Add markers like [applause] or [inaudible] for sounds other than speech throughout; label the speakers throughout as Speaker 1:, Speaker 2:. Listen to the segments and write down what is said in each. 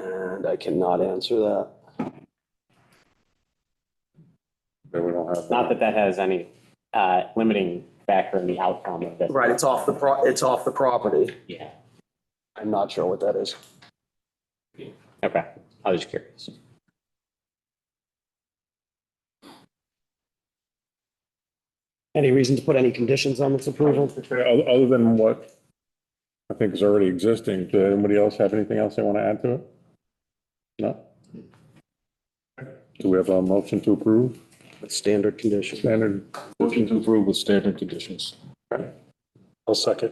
Speaker 1: end, I cannot answer that.
Speaker 2: But we don't have.
Speaker 3: Not that that has any uh, limiting factor in the outcome of this.
Speaker 1: Right, it's off the, pro. it's off the property.
Speaker 3: Yeah.
Speaker 1: I'm not sure what that is.
Speaker 3: Okay, I was curious.
Speaker 1: Any reason to put any conditions on this approval?
Speaker 2: Other other than what I think is already existing, does anybody else have anything else they want to add to it? No? Do we have a motion to approve?
Speaker 1: Standard conditions.
Speaker 2: Standard.
Speaker 4: Motion to approve with standard conditions.
Speaker 2: I'll second.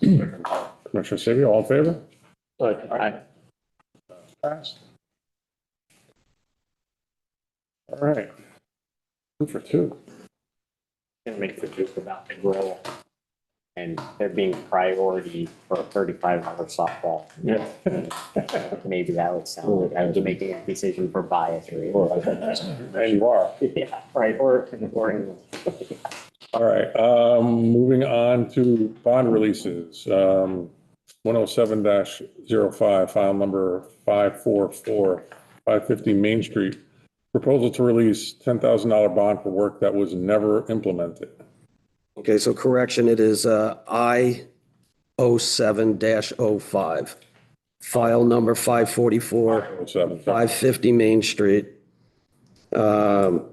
Speaker 2: Commissioner Sabia, all in favor?
Speaker 3: Aye.
Speaker 2: Passed. All right. Two for two.
Speaker 3: Gonna make the joke about the grill and there being priority for a thirty-five dollar softball.
Speaker 4: Yeah.
Speaker 2: [laughs]
Speaker 3: Maybe that would sound like I was making a decision for bias or. [laughs]
Speaker 2: And you are.
Speaker 3: Yeah, right, or, or.
Speaker 2: All right, um, moving on to bond releases. Um, one oh seven 5 file number five four four, five fifty Main Street. Proposal to release ten thousand dollar bond for work that was never implemented.
Speaker 1: Okay, so correction, it is uh, I 07-05, file number 544.
Speaker 2: 107.
Speaker 1: 550 Main Street. Um,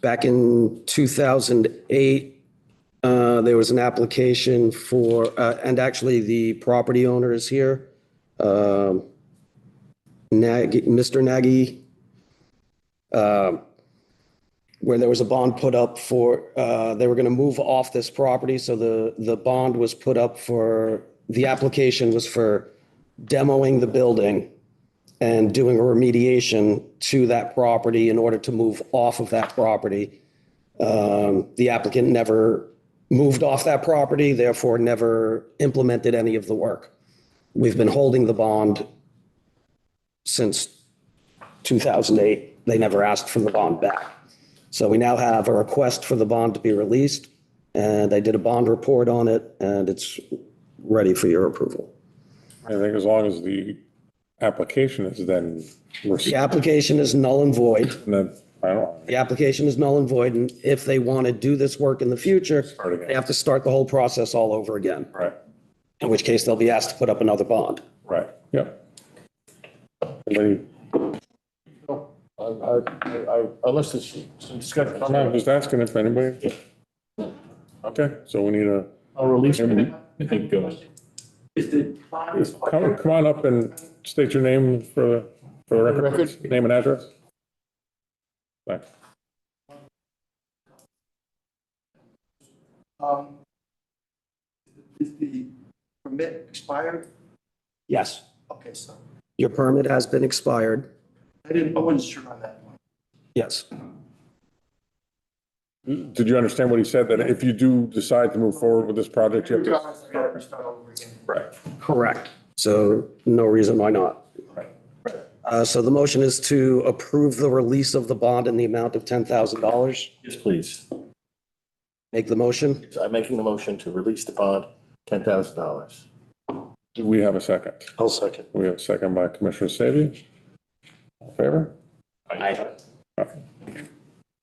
Speaker 1: Back in 2008, uh, there was an application for, uh, and actually the property owner is here. um, Nagy, Mr. Nagy. um, Where there was a bond put up for, uh, they were going to move off this property, so the, the bond was put up for, the application was for demoing the building and doing a remediation to that property in order to move off of that property. Um, The applicant never moved off that property, therefore never implemented any of the work. We've been holding the bond since 2008. They never asked for the bond back. So we now have a request for the bond to be released, and I did a bond report on it, and it's ready for your approval.
Speaker 2: I think as long as the application is then
Speaker 1: The
Speaker 2: received,
Speaker 1: application is null and void.
Speaker 2: then, I don't know.
Speaker 1: the application is null and void, and if they want to do this work in the future,
Speaker 2: Start again.
Speaker 1: they have to start the whole process all over again,
Speaker 2: Right,
Speaker 1: in which case they'll be asked to put up another bond.
Speaker 2: right, yep. Anybody-
Speaker 4: I, I, I- unless there's some discussion,
Speaker 2: I'm not- just asking if anybody. Okay, so we need a.
Speaker 4: I'll release it. I think, uh,
Speaker 2: Come, come on up and state your name for, the for the record, please. name and address. Thanks.
Speaker 5: Um, Is the permit expired?
Speaker 1: Yes.
Speaker 5: Okay, so
Speaker 1: Your permit has been expired.
Speaker 5: I didn't, I wasn't sure on that one.
Speaker 1: Yes.
Speaker 2: Did you understand what he said, that if you do decide to move forward with this project, you have to?
Speaker 5: Regardless, I gotta restart over again.
Speaker 2: Right.
Speaker 1: Correct. So no reason why not. Uh, so the motion is to approve the release of the bond in the amount of ten thousand dollars.
Speaker 4: Yes, please.
Speaker 1: Make the motion.
Speaker 4: I'm making the motion to release the bond, ten thousand dollars.
Speaker 2: Do we have a second?
Speaker 4: I'll second.
Speaker 2: We have a second by Commissioner Savage. All in Favor?
Speaker 3: I,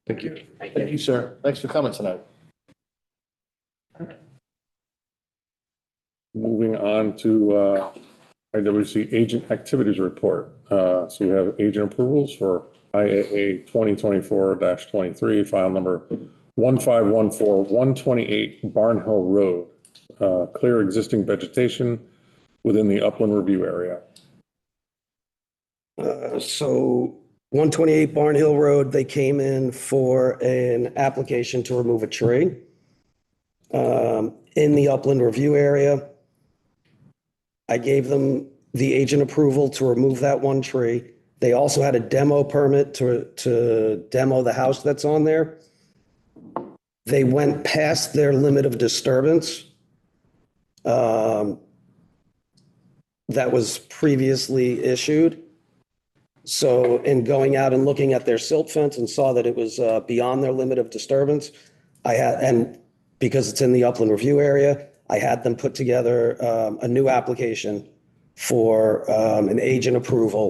Speaker 4: Thank you. Thank you, sir. Thanks for coming tonight.
Speaker 2: Moving on to uh, IWC Agent Activities Report. Uh, So we have agent approvals for IAA 2024-23, file number 1514128 Barn Hill Road. Uh, Clear existing vegetation within the upland review area.
Speaker 1: Uh, So 128 Barn Hill Road, they came in for an application to remove a tree um, in the upland review area. I gave them the agent approval to remove that one tree. They also had a demo permit to, to demo the house that's on there. They went past their limit of disturbance. um, That was previously issued. So in going out and looking at their silt fence and saw that it was uh, beyond their limit of disturbance, I had, and because it's in the upland review area, I had them put together um, a new application for um, an agent approval